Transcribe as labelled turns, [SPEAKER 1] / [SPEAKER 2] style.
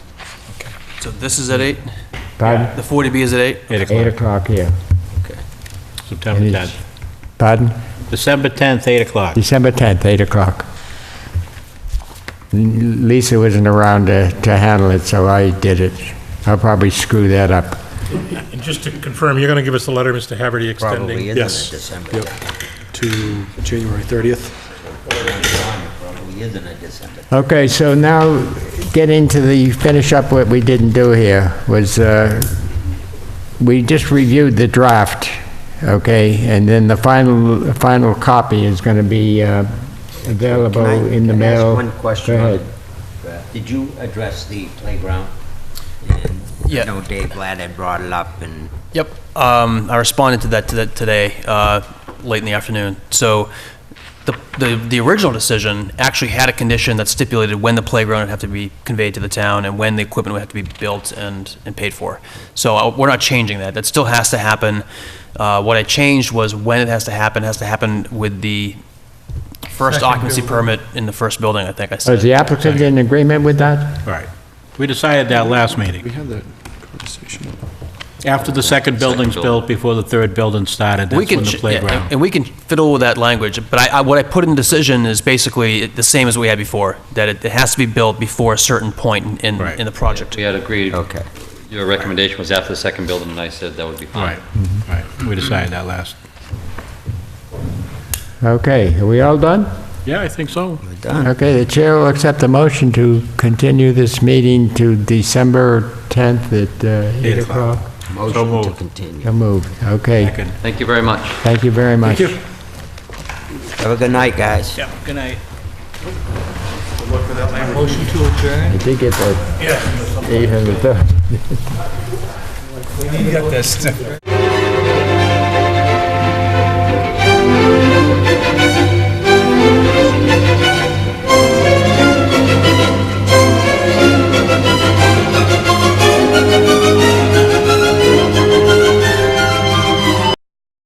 [SPEAKER 1] So this is at eight?
[SPEAKER 2] Pardon?
[SPEAKER 1] The 40B is at eight?
[SPEAKER 3] Eight
[SPEAKER 2] Eight
[SPEAKER 3] o'clock,
[SPEAKER 2] o'clock, yeah.
[SPEAKER 3] September
[SPEAKER 2] It is.
[SPEAKER 3] 10th.
[SPEAKER 2] Pardon?
[SPEAKER 3] December 10th, 8 o'clock.
[SPEAKER 2] December 10th, 8 o'clock. N- Lisa wasn't around to, to handle it, so I did it. I'll probably screw that up.
[SPEAKER 4] And just to confirm, you're going to give us the letter, Mr. Haverty, extending?
[SPEAKER 5] Probably isn't
[SPEAKER 6] Yes.
[SPEAKER 5] it December 10th?
[SPEAKER 6] to January 30th.
[SPEAKER 5] Probably isn't it December
[SPEAKER 2] Okay, so now get into the, finish up what we didn't do here, was, uh, we just reviewed the draft, okay? And then the final, final copy is going to be uh, available
[SPEAKER 5] Can I-
[SPEAKER 2] in the
[SPEAKER 5] can I ask
[SPEAKER 2] mail.
[SPEAKER 5] one question? Uh,
[SPEAKER 2] Go ahead.
[SPEAKER 5] Did you address the playground? And
[SPEAKER 1] Yeah.
[SPEAKER 5] I know Dave Ladd had brought it up, and
[SPEAKER 1] Yep, um, I responded to that to that today, uh, late in the afternoon. So the, the, the original decision actually had a condition that stipulated when the playground would have to be conveyed to the town and when the equipment would have to be built and, and paid for. So uh, we're not changing that, that still has to happen. Uh, What I changed was when it has to happen, it has to happen with the first
[SPEAKER 4] Second
[SPEAKER 1] occupancy
[SPEAKER 4] building.
[SPEAKER 1] permit in the first building, I think I
[SPEAKER 2] Is
[SPEAKER 1] said.
[SPEAKER 2] the applicant in agreement with that?
[SPEAKER 3] All right. We decided that last meeting.
[SPEAKER 6] We had that conversation.
[SPEAKER 3] After the second building's built, before the third building started,
[SPEAKER 1] We
[SPEAKER 3] that's
[SPEAKER 1] can
[SPEAKER 3] when the
[SPEAKER 1] ch- yeah, and-
[SPEAKER 3] playground.
[SPEAKER 1] And we can fiddle with that language, but I, I, what I put in decision is basically the same as we had before, that it, it has to be built before a certain point in,
[SPEAKER 3] Right.
[SPEAKER 1] in the project.
[SPEAKER 7] We had agreed,
[SPEAKER 5] Okay.
[SPEAKER 7] your recommendation was after the second building, and I said that would be
[SPEAKER 3] All
[SPEAKER 7] fine.
[SPEAKER 3] right, all right. We decided that last.
[SPEAKER 2] Okay, are we all done?
[SPEAKER 3] Yeah, I think so.
[SPEAKER 5] we're done.
[SPEAKER 2] Okay, the chair will accept the motion to continue this meeting to December 10th at uh, 8
[SPEAKER 3] Eight o'clock.
[SPEAKER 2] o'clock.
[SPEAKER 5] Motion to
[SPEAKER 3] moved.
[SPEAKER 5] continue.
[SPEAKER 2] So moved. Okay,
[SPEAKER 3] Second.
[SPEAKER 7] Thank you very much.
[SPEAKER 2] thank you very much.
[SPEAKER 5] Have a good night, guys.
[SPEAKER 3] Good night.
[SPEAKER 2] I did get that 800.